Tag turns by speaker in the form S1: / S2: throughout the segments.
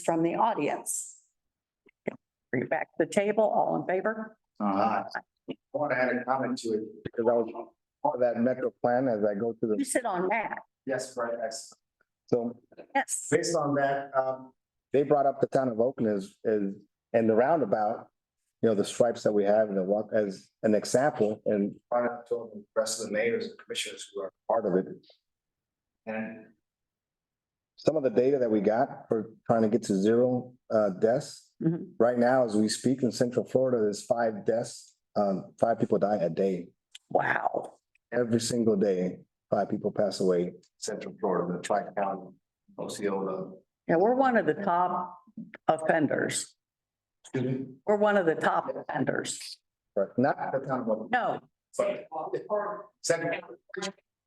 S1: from the audience. Bring it back to the table, all in favor?
S2: Uh, I want to add a comment to it because I was part of that metro plan as I go through
S1: You
S2: the,
S1: sit on that,
S2: yes, right, yes. So
S1: yes.
S2: based on that, um, they brought up the town of Oakland as, as, and the roundabout, you know, the stripes that we have and the walk as an example and brought it to the rest of the mayors and commissioners who are part of it. And some of the data that we got for trying to get to zero, uh, deaths,
S1: Mhm.
S2: right now, as we speak in central Florida, there's five deaths, um, five people die a day.
S1: Wow,
S2: Every single day, five people pass away. Central Florida, the tri-county, Osceola.
S1: yeah, we're one of the top offenders,
S2: Excuse me?
S1: we're one of the top offenders.
S2: Correct, not the town of Oakland,
S1: No,
S2: but Second.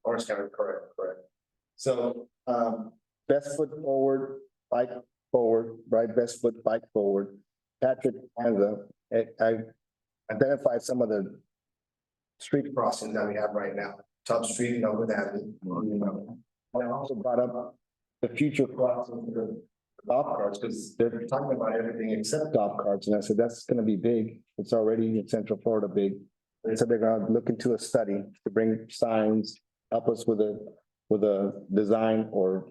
S2: Orange County, correct, correct. So, um, best foot forward, bike forward, right, best foot, bike forward. Patrick Panza, I, I identified some of the street crossings that we have right now, Top Street and Oakland Avenue. you know. And I also brought up the future crossing for the golf carts, because they're talking about everything except golf carts, and I said, that's gonna be big. It's already in Central Florida big. They said they're gonna look into a study to bring signs, help us with a, with a design or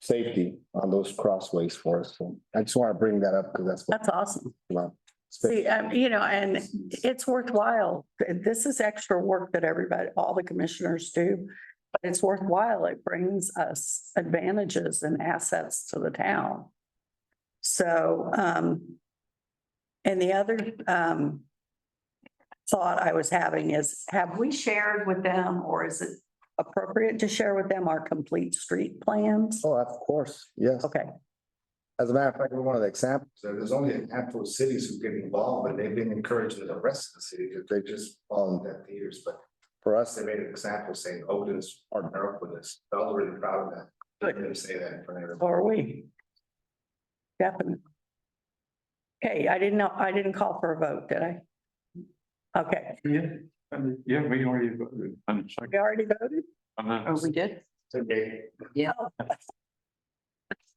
S2: safety on those crossways for us. So I just wanna bring that up because that's what.
S1: that's awesome.
S2: Wow.
S1: See, um, you know, and it's worthwhile. This is extra work that everybody, all the commissioners do. But it's worthwhile. It brings us advantages and assets to the town. So, um, and the other, um, thought I was having is, have we shared with them or is it appropriate to share with them our complete street plans?
S2: Oh, of course, yes.
S1: Okay,
S2: As a matter of fact, we're one of the examples. There's only a handful of cities who get involved, and they've been encouraging the rest of the city, because they just followed that for years, but. For us, they made an example saying Oakland's partner up with us. I was really proud of that.
S1: Good.
S2: Let them say that in front of everybody.
S1: or we? Definitely. Okay, I didn't know, I didn't call for a vote, did I? Okay,
S3: Yeah, and yeah, we already voted on second.
S1: we already voted?
S3: on the-
S1: Oh, did.
S2: Okay.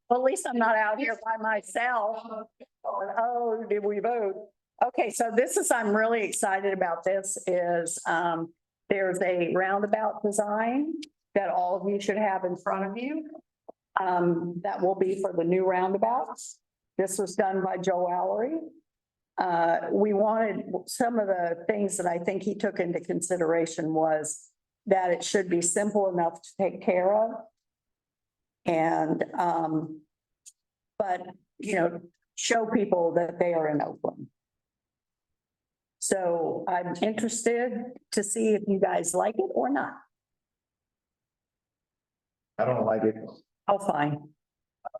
S1: Well, at least I'm not out here by myself. Oh, did we vote? Okay, so this is, I'm really excited about this is, um, there's a roundabout design that all of you should have in front of you. Um, that will be for the new roundabouts. This was done by Joe Allery. Uh, we wanted, some of the things that I think he took into consideration was that it should be simple enough to take care of. And, um, but, you know, show people that they are in Oakland. So I'm interested to see if you guys like it or not.
S2: I don't like it,
S1: Oh, fine.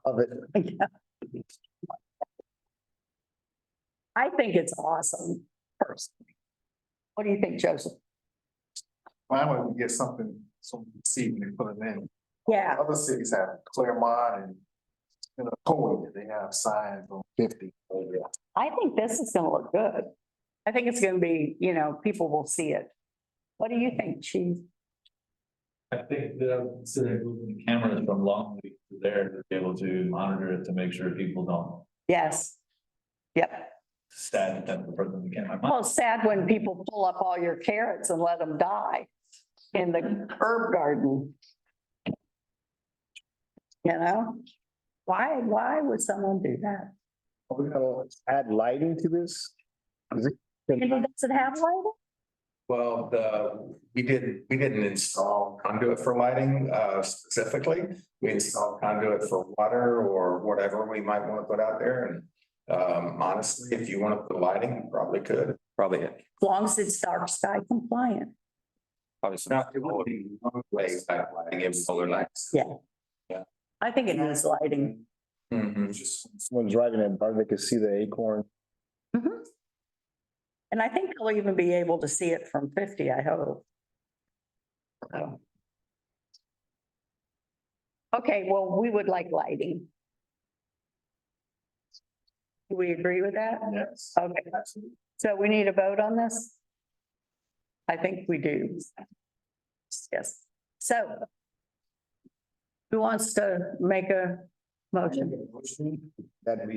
S2: of it.
S1: I think it's awesome personally. What do you think, Joseph?
S4: Why don't we get something, some seed and put it in?
S1: Yeah,
S4: Other cities have Claremont and, you know, Coley, they have signs on fifty.
S2: Oh,
S1: I think this is gonna look good. I think it's gonna be, you know, people will see it. What do you think, chief?
S5: I think the, so they're moving cameras from Longleat to there to be able to monitor it to make sure people don't
S1: Yes. Yep.
S5: stand at them for the camera.
S1: Well, it's sad when people pull up all your carrots and let them die in the herb garden. You know? Why, why would someone do that?
S2: Are we gonna add lighting to this? Is
S1: You know,
S2: it?
S1: does it have lighting?
S6: Well, the, we didn't, we didn't install conduit for lighting uh specifically. We installed conduit for water or whatever we might want to put out there and. Um, honestly, if you want to put lighting, you probably could. Probably.
S1: As long as it's dark sky compliant.
S6: Probably. Not, it would be one place that lighting and solar lights.
S1: I think it needs lighting.
S6: Mhm.
S2: Just Someone's driving it, but they could see the acorn.
S1: And I think they'll even be able to see it from fifty, I hope. So. Okay, well, we would like lighting. Do we agree with that?
S6: Yes.
S1: Okay, so we need a vote on this? I think we do. Yes, so. Who wants to make a motion.
S2: That we